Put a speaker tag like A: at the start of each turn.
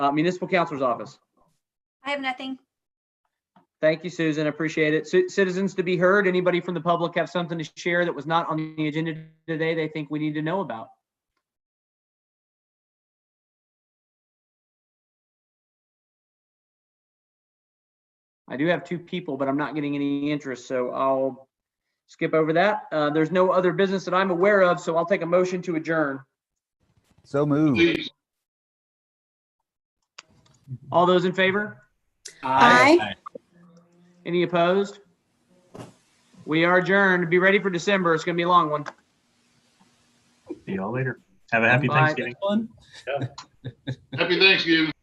A: Uh, Municipal Counselor's Office.
B: I have nothing.
A: Thank you, Susan. Appreciate it. Ci- Citizens to be heard. Anybody from the public have something to share that was not on the agenda today they think we need to know about? I do have two people, but I'm not getting any interest, so I'll skip over that. Uh, There's no other business that I'm aware of, so I'll take a motion to adjourn.
C: So moved.
A: All those in favor?
D: Aye.
A: Any opposed? We are adjourned. Be ready for December. It's going to be a long one.
E: See y'all later. Have a happy
A: Bye.
E: Thanksgiving.
F: Happy Thanksgiving.